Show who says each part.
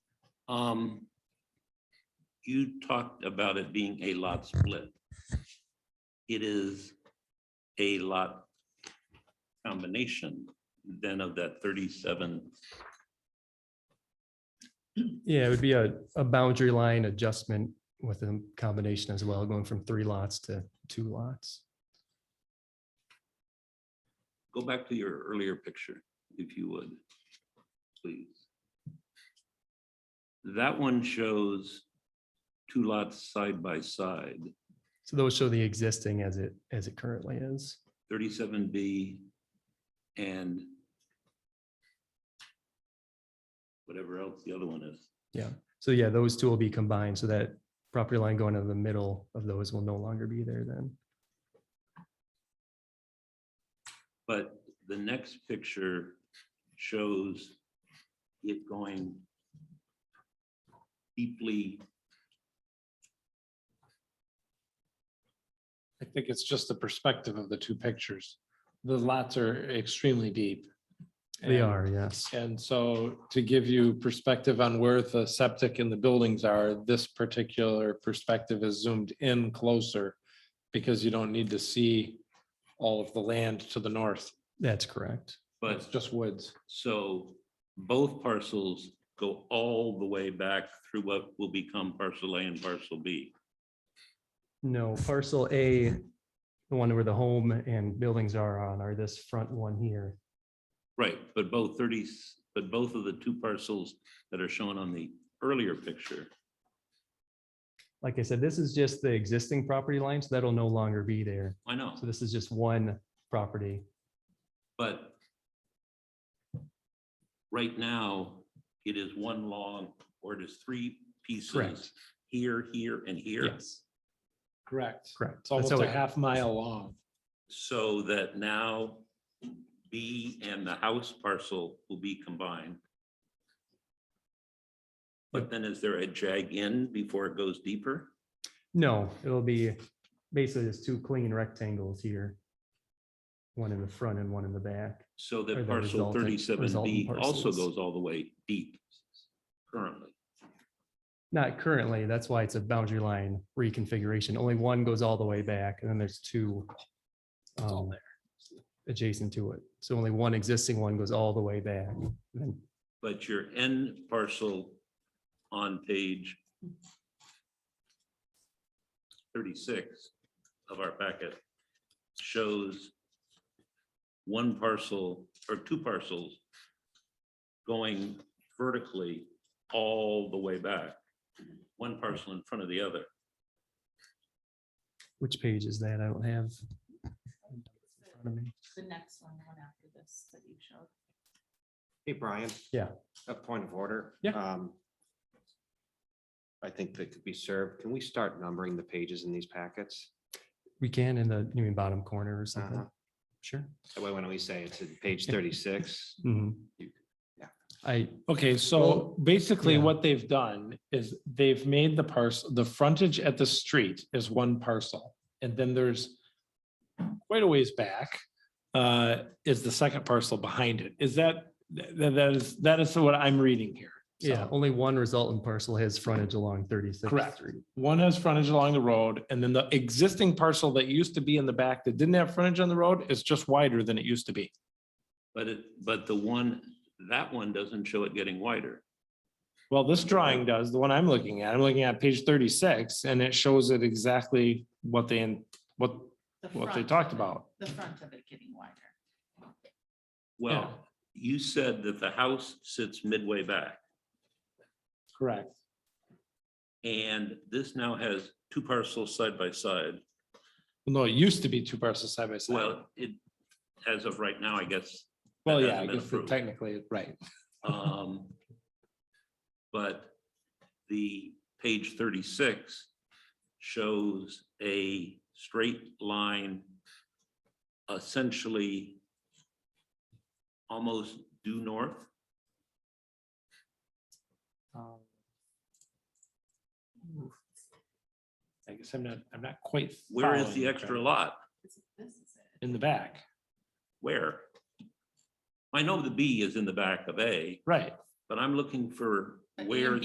Speaker 1: Um, you talked about it being a lot split. It is a lot combination then of that thirty-seven.
Speaker 2: Yeah, it would be a, a boundary line adjustment with a combination as well, going from three lots to two lots.
Speaker 1: Go back to your earlier picture, if you would, please. That one shows two lots side by side,
Speaker 2: So those show the existing as it, as it currently is.
Speaker 1: thirty-seven B and whatever else the other one is.
Speaker 2: So yeah, those two will be combined so that property line going to the middle of those will no longer be there then.
Speaker 1: But the next picture shows it going deeply,
Speaker 3: I think it's just the perspective of the two pictures. The lots are extremely deep.
Speaker 2: They
Speaker 3: And-
Speaker 2: are, yes.
Speaker 3: And so to give you perspective on where the septic and the buildings are, this particular perspective is zoomed in closer because you don't need to see all of the land to the north.
Speaker 2: That's correct.
Speaker 1: but
Speaker 3: It's just woods.
Speaker 1: so both parcels go all the way back through what will become parcel A and parcel B.
Speaker 2: No, parcel A, the one where the home and buildings are on are this front one here.
Speaker 1: Right, but both thirties, but both of the two parcels that are shown on the earlier picture,
Speaker 2: Like I said, this is just the existing property line, so that'll no longer be there.
Speaker 1: I know,
Speaker 2: So this is just one property.
Speaker 1: but right now, it is one long, or it is three pieces
Speaker 2: Correct.
Speaker 1: here, here, and here.
Speaker 2: Yes,
Speaker 3: Correct.
Speaker 2: correct.
Speaker 3: It's
Speaker 2: That's
Speaker 3: almost
Speaker 2: how
Speaker 3: a
Speaker 2: it-
Speaker 3: half mile long.
Speaker 1: So that now B and the house parcel will be combined. But then is there a jag in before it goes deeper?
Speaker 2: No, it'll be basically just two clean rectangles here. One in the front and one in the back.
Speaker 1: So
Speaker 2: Or
Speaker 1: that
Speaker 2: the
Speaker 1: parcel
Speaker 2: resultant-
Speaker 1: thirty-seven B
Speaker 2: resultant
Speaker 1: also
Speaker 2: parcels.
Speaker 1: goes all the way deep currently.
Speaker 2: Not currently, that's why it's a boundary line reconfiguration. Only one goes all the way back and then there's two um, adjacent to it. So only one existing one goes all the way back. And then-
Speaker 1: But your end parcel on page thirty-six of our packet shows one parcel or two parcels going vertically all the way back, one parcel in front of the other.
Speaker 2: Which page is that? I don't have. in front of me.
Speaker 4: The next one, the one after this that you showed.
Speaker 5: Hey, Brian.
Speaker 2: Yeah.
Speaker 5: A point of order.
Speaker 2: Yeah.
Speaker 5: Um, I think that could be served. Can we start numbering the pages in these packets?
Speaker 2: We can in the, you mean bottom corner or
Speaker 5: Uh-huh.
Speaker 2: something? Sure.
Speaker 5: That way, when we say it's in page thirty-six,
Speaker 3: Mm-hmm.
Speaker 2: Mhm.
Speaker 5: You- yeah.
Speaker 2: I,
Speaker 3: Okay,
Speaker 2: Well,
Speaker 3: so basically
Speaker 2: yeah.
Speaker 3: what they've done is they've made the parcel, the frontage at the street is one parcel. And then there's quite a ways back, uh, is the second parcel behind it. Is that, that, that is, that is what I'm reading here. So,
Speaker 2: yeah, only one resultant parcel has frontage along 36th
Speaker 3: Correct.
Speaker 2: Street.
Speaker 3: One has frontage along the road and then the existing parcel that used to be in the back that didn't have frontage on the road is just wider than it used to be.
Speaker 1: But it, but the one, that one doesn't show it getting wider.
Speaker 3: Well, this drawing does, the one I'm looking at, I'm looking at page thirty-six, and it shows it exactly what they, in- what,
Speaker 4: The
Speaker 3: what they
Speaker 4: front
Speaker 3: talked
Speaker 4: of it-
Speaker 3: about.
Speaker 4: The front of it getting wider.
Speaker 1: Well, you said that the house sits midway back.
Speaker 3: Correct.
Speaker 1: And this now has two parcels side by side.
Speaker 3: No, it used to be two parcels side by side.
Speaker 1: Well, it, as of right now, I guess.
Speaker 3: Well,
Speaker 1: that
Speaker 3: yeah,
Speaker 1: hasn't
Speaker 3: I
Speaker 1: been
Speaker 3: guess
Speaker 1: approved.
Speaker 3: technically, right.
Speaker 1: Um, But the page thirty-six shows a straight line essentially almost due north.
Speaker 3: Um, I guess I'm not, I'm not quite.
Speaker 1: Where is
Speaker 3: following
Speaker 1: the
Speaker 3: you,
Speaker 1: extra
Speaker 3: John.
Speaker 1: lot?
Speaker 4: This is- This is it.
Speaker 3: In the back,
Speaker 1: Where? I know the B is in the back of A,
Speaker 3: right.
Speaker 1: but I'm looking for
Speaker 4: But
Speaker 1: where
Speaker 4: in